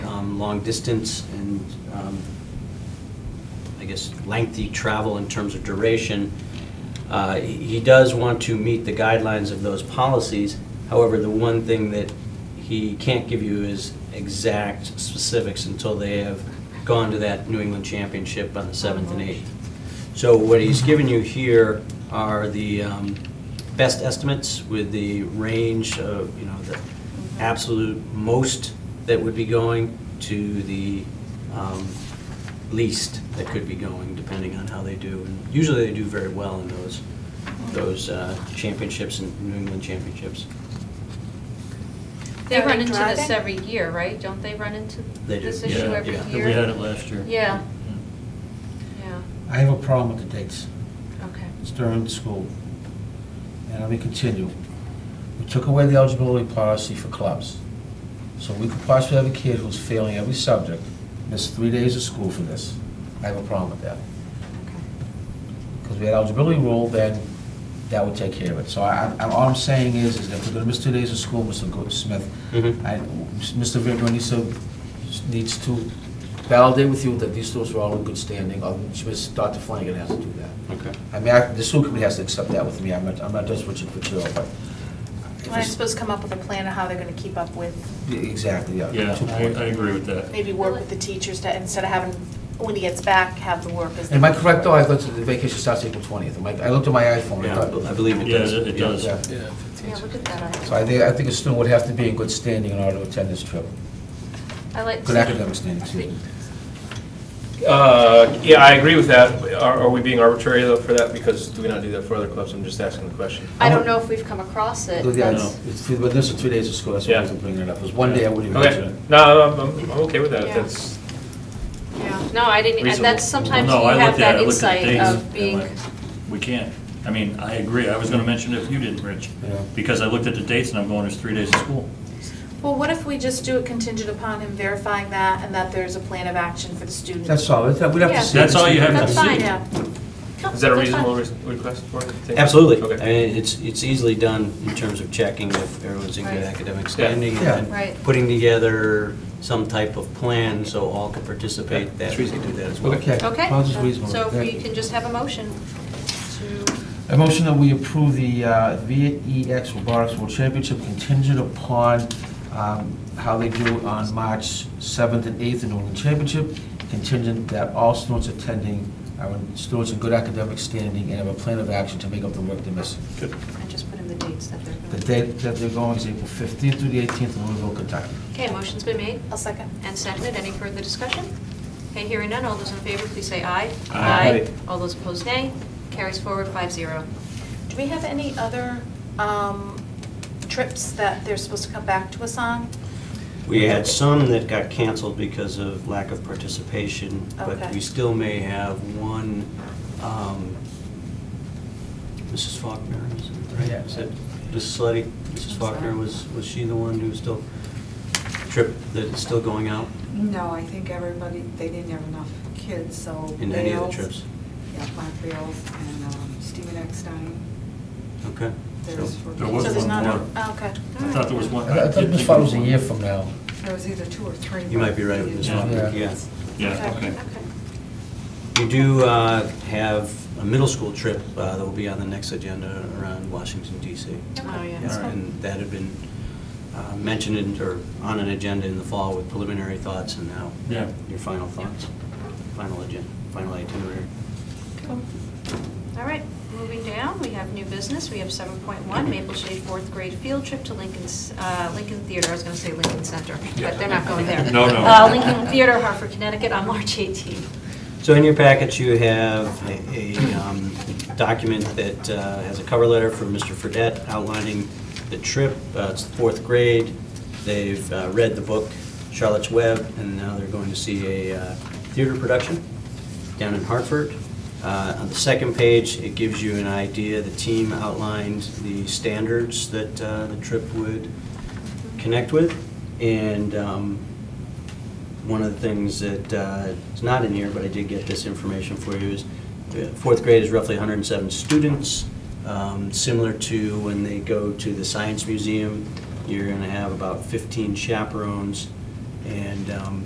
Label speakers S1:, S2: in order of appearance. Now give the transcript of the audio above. S1: um, long distance and, um, I guess, lengthy travel in terms of duration. Uh, He he does want to meet the guidelines of those policies. However, the one thing that he can't give you is exact specifics until they have gone to that New England Championship on the 7th and 8th. So what he's given you here are the um, best estimates with the range of, you know, the absolute most that would be going to the um, least that could be going, depending on how they do. And Usually they do very well in those, those uh, championships and New England championships.
S2: They
S3: Are
S2: run
S3: they
S2: into this
S3: driving?
S2: every year, right? Don't they run into
S1: They do.
S2: this
S1: Yeah,
S2: issue every
S1: yeah.
S2: year?
S4: We had it last year.
S2: Yeah. Yeah,
S5: I have a problem with the dates.
S2: okay.
S5: It's during school. And let me continue. We took away the eligibility policy for clubs. So we could possibly have a kid who's failing every subject, miss three days of school for this. I have a problem with that. Because we had eligibility rule, then that would take care of it. So I, I- all I'm saying is, is that if we're gonna miss two days of school, Mr. Go- Smith,
S1: Mhm.
S5: I, Mr. Vigor needs to, needs to validate with you that these students are all in good standing, or Ms. Dr. Flanagan has to do that.
S1: Okay.
S5: I mean, I- the school committee has to accept that with me, I'm not, I'm not just Richard Patillo, but.
S3: Well, I suppose come up with a plan of how they're gonna keep up with,
S5: Exactly, yeah.
S4: Yeah,
S5: Two
S4: I,
S5: point.
S4: I agree with that.
S3: maybe work with the teachers to, instead of having, when he gets back, have the work as.
S5: Am I correct, though, I thought that the vacation starts April twentieth, I looked at my iPhone, I
S1: Yeah, I
S5: thought.
S1: believe it
S4: Yeah,
S1: does.
S4: it it
S1: Yeah.
S4: does.
S5: Yeah.
S2: Yeah, look at that.
S5: So I think, I think a student would have to be in good standing in order to attend this trip,
S2: I like.
S5: good academic standing, excuse me.
S6: Uh, Yeah, I agree with that. Are are we being arbitrary though for that? Because do we not do that for other clubs? I'm just asking the question.
S2: I don't know if we've come across it.
S5: Yeah,
S2: That's-
S5: it's- it's three- But this is two days of school, that's why I was
S6: Yeah.
S5: bringing it up, it was one day I wouldn't even mention
S6: Okay,
S5: it.
S6: no, I'm- I'm I'm okay with that.
S3: Yeah.
S6: That's,
S3: Yeah.
S2: No, I didn't, and
S6: Reasonable.
S2: that's, sometimes you
S4: Well, no, I
S2: have
S4: looked at-
S2: that
S4: I looked at the
S2: insight
S4: dates
S2: of
S4: and
S2: being,
S4: like, We can't. I mean, I agree. I was gonna mention it if you didn't, Rich.
S5: Yeah.
S4: Because I looked at the dates and I'm going, it's three days of school.
S3: Well, what if we just do it contingent upon him verifying that and that there's a plan of action for the student?
S5: That's all, it's- we'd have
S2: Yeah.
S5: to see.
S4: That's all you have to
S2: that's
S4: see.
S2: fine.
S3: Yeah.
S6: is that a
S2: That's
S6: reasonable
S2: fine.
S6: re- request for it?
S1: Absolutely. I
S6: Okay.
S1: mean, it's, it's easily done in terms of checking if everyone's in good
S2: Right.
S1: academic standing
S5: Yeah.
S1: and then
S2: Right.
S1: putting together some type of plan so all can participate. That, we can do that as well.
S5: Okay.
S2: Okay,
S5: Well, it's reasonable.
S2: so if
S5: Yeah.
S2: we can just have a motion to,
S5: A motion that we approve the uh, VEX Robotics World Championship contingent upon um, how they do on March 7th and 8th in New England Championship, contingent that all students attending are in- students in good academic standing and have a plan of action to make up the work they missed.
S2: I just put in the dates that they're.
S5: The date that they're going is April 15th through the 18th in Louisville, Kentucky.
S2: Okay, motion's been made
S3: I'll second.
S2: and seconded. Any further discussion? Okay, hearing none. All those in favor, please say aye.
S4: Aye.
S2: All those opposed, nay. Carries forward five zero.
S3: Do we have any other um, trips that they're supposed to come back to us on?
S1: We had some that got canceled because of lack of participation, but
S3: Okay.
S1: we still may have one, um, Mrs. Faulkner, is it right?
S5: Yeah.
S1: Is it Mrs. Sleddy? Mrs. Faulkner, was, was she the one who was still, trip, that is still going out
S7: No, I think everybody, they didn't have enough kids, so.
S1: in any of the
S7: Bales-
S1: trips?
S7: Yeah, Mark Bales and um, Stephen Eckstein.
S1: Okay.
S7: There's for-
S4: There was
S3: So there's
S4: one
S3: not
S4: more.
S3: a- oh, Okay.
S4: I thought there was one.
S5: I
S4: did
S5: thought
S4: think
S5: this
S4: there
S5: was a
S4: one.
S5: year from now.
S7: There was either two or three.
S1: You might be right with this
S4: Yeah.
S1: one, yeah.
S4: Yeah, okay.
S1: We do uh, have a middle school trip uh, that will be on the next agenda around Washington DC.
S2: Oh, yeah.
S1: Yeah, And that had been uh, mentioned in- or on an agenda in the fall with preliminary thoughts and now
S4: Yeah.
S1: your final thoughts, final agenda, final itinerary.
S2: All right, moving down, we have new business. We have 7.1, Maple Shade fourth grade field trip to Lincoln, uh, Lincoln Theater. I was going to say Lincoln Center, but they're not going there.
S4: No, no.
S2: Uh, Lincoln Theater, Hartford, Connecticut, on March 18th.
S1: So in your packets, you have a a, um, document that uh, has a cover letter from Mr. Fredette outlining the trip. Uh, It's the fourth grade. They've uh, read the book Charlotte's Web, and now they're going to see a uh, theater production down in Hartford. Uh, On the second page, it gives you an idea. The team outlined the standards that uh, the trip would connect with, and um, one of the things that uh, is not in here, but I did get this information for you, is uh, fourth grade is roughly 107 students, Um, similar to when they go to the Science Museum, you're going to have about 15 chaperones, and um,